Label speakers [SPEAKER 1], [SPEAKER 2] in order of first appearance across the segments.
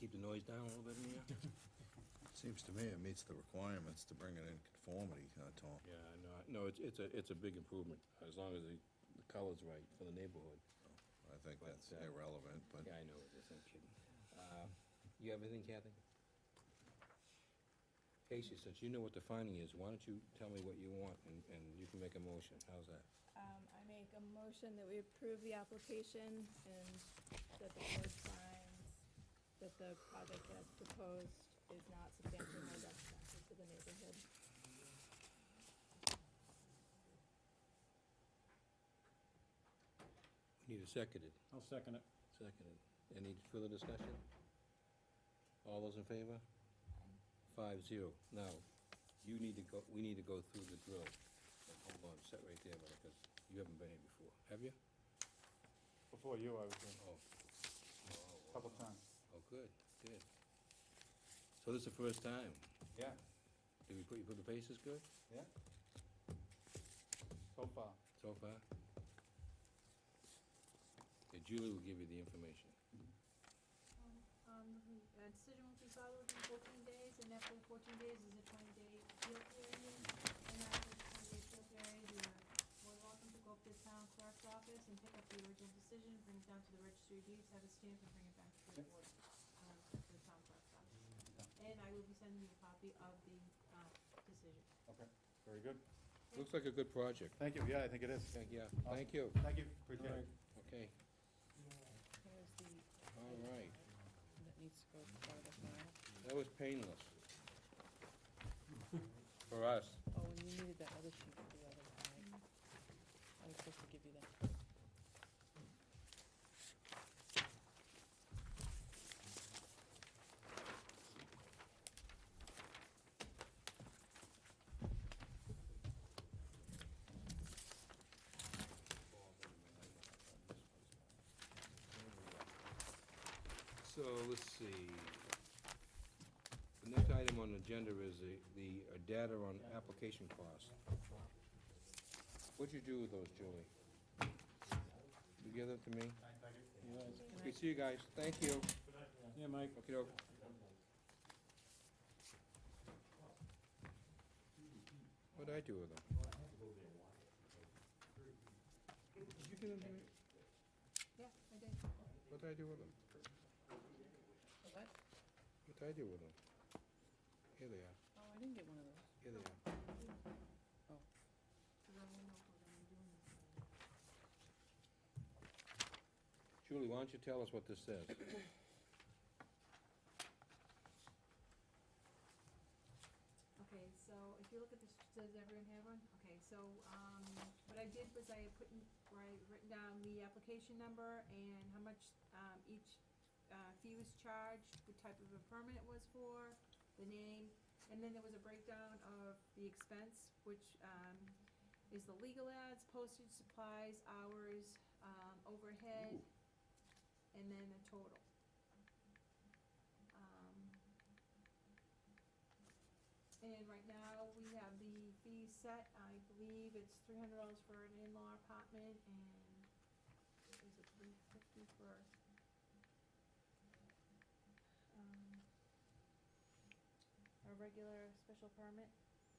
[SPEAKER 1] keep the noise down a little bit in here?
[SPEAKER 2] Seems to me it meets the requirements to bring it in conformity, uh, Tom.
[SPEAKER 1] Yeah, no, I- no, it's, it's a, it's a big improvement, as long as the, the color's right for the neighborhood.
[SPEAKER 2] I think
[SPEAKER 1] But,
[SPEAKER 2] that's
[SPEAKER 1] uh,
[SPEAKER 2] irrelevant, but
[SPEAKER 1] Yeah, I know, it is, I'm kidding. Uh, You have anything, Kathy? Casey, since you know what the finding is, why don't you tell me what you want, and, and you can make a motion, how's that?
[SPEAKER 3] Um, I make a motion that we approve the application and that the board finds that the project as proposed is not substantially more detrimental to the neighborhood.
[SPEAKER 1] We Need a seconded,
[SPEAKER 4] I'll second it.
[SPEAKER 1] seconded. Any further discussion? All those in favor? Five zero. Now, you need to go, we need to go through the drill. Hold on, sit right there, because you haven't been here before, have you?
[SPEAKER 4] Before you, I was in
[SPEAKER 1] Oh,
[SPEAKER 4] a couple times.
[SPEAKER 1] oh, good, good. So this is the first time.
[SPEAKER 4] Yeah,
[SPEAKER 1] Did we put, you put the faces good
[SPEAKER 4] yeah. So far.
[SPEAKER 1] so far? Yeah, Julie will give you the information.
[SPEAKER 5] Um, the decision will be filed within fourteen days, and after the fourteen days is a twenty-day appeal period. And after the twenty-day appeal period, uh, you are more than welcome to go up to the town clerk's office and pick up the original decision, bring it down to the registry of deeds, have it stamped, and bring it back to the
[SPEAKER 4] Yep.
[SPEAKER 5] board, um, to the town clerk's office. And I will be sending you a copy of the, uh, decision.
[SPEAKER 4] Okay, very good.
[SPEAKER 1] Looks like a good project.
[SPEAKER 4] Thank you, yeah, I think it is.
[SPEAKER 1] Thank you, thank you.
[SPEAKER 4] Thank you, appreciate it.
[SPEAKER 1] Okay,
[SPEAKER 6] Here's the,
[SPEAKER 1] all right.
[SPEAKER 6] that needs to go to the bottom now.
[SPEAKER 1] That was painless. For us.
[SPEAKER 6] Oh, and you needed that other sheet for the other guy. I was supposed to give you that.
[SPEAKER 1] So, let's see. The next item on the agenda is the, the uh, data on application costs. What'd you do with those, Julie? You give them to me? Okay, see you guys, thank you.
[SPEAKER 4] Yeah, Mike.
[SPEAKER 1] Okay, doke. What'd I do with them? Did you give them to me?
[SPEAKER 5] Yeah, I did.
[SPEAKER 1] What'd I do with them?
[SPEAKER 6] What?
[SPEAKER 1] What'd I do with them? Here they are,
[SPEAKER 6] Oh, I didn't get one of those.
[SPEAKER 1] here they are.
[SPEAKER 5] Because I don't know if we're gonna be doing this.
[SPEAKER 1] Julie, why don't you tell us what this says?
[SPEAKER 5] Okay, so if you look at this, does everyone have one? Okay, so, um, what I did was I put in, where I written down the application number and how much, um, each, uh, fee was charged, what type of a permit it was for, the name, and then there was a breakdown of the expense, which, um, is the legal ads, postage, supplies, hours, um, overhead, and then the total. Um, and right now, we have the fee set, I believe it's three hundred dollars for an in-law apartment and is it three fifty for? Um, a regular special permit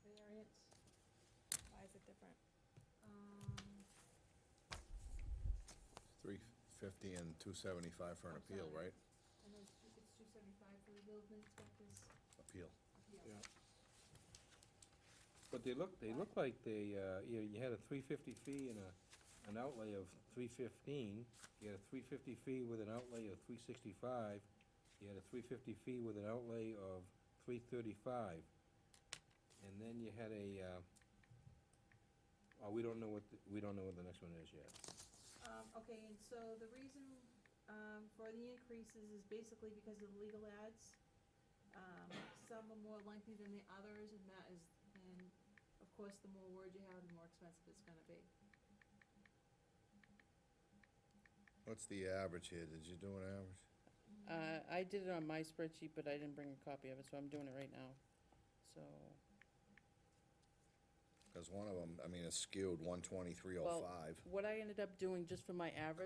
[SPEAKER 5] variance,
[SPEAKER 3] Why is it different?
[SPEAKER 5] um.
[SPEAKER 2] three fifty and two seventy-five for an
[SPEAKER 5] I'm
[SPEAKER 2] appeal,
[SPEAKER 5] sorry.
[SPEAKER 2] right?
[SPEAKER 5] And it's two, it's two seventy-five for the building inspector's
[SPEAKER 2] Appeal.
[SPEAKER 5] appeal.
[SPEAKER 1] Yeah. But they look, they look like they, uh, you, you had a three fifty fee and a, an outlay of three fifteen. You had a three fifty fee with an outlay of three sixty-five. You had a three fifty fee with an outlay of three thirty-five. And then you had a, uh, oh, we don't know what, the- we don't know what the next one is yet.
[SPEAKER 5] Um, okay, and so the reason, um, for the increases is basically because of the legal ads. Um, some are more lengthy than the others, and that is, and of course, the more words you have, the more expensive it's gonna be.
[SPEAKER 2] What's the average here? Did you do an average?
[SPEAKER 6] Uh, I did it on my spreadsheet, but I didn't bring a copy of it, so I'm doing it right now. So,
[SPEAKER 2] Cause one of them, I mean, it's skewed one twenty-three oh
[SPEAKER 6] Well,
[SPEAKER 2] five.
[SPEAKER 6] what I ended up doing, just for my average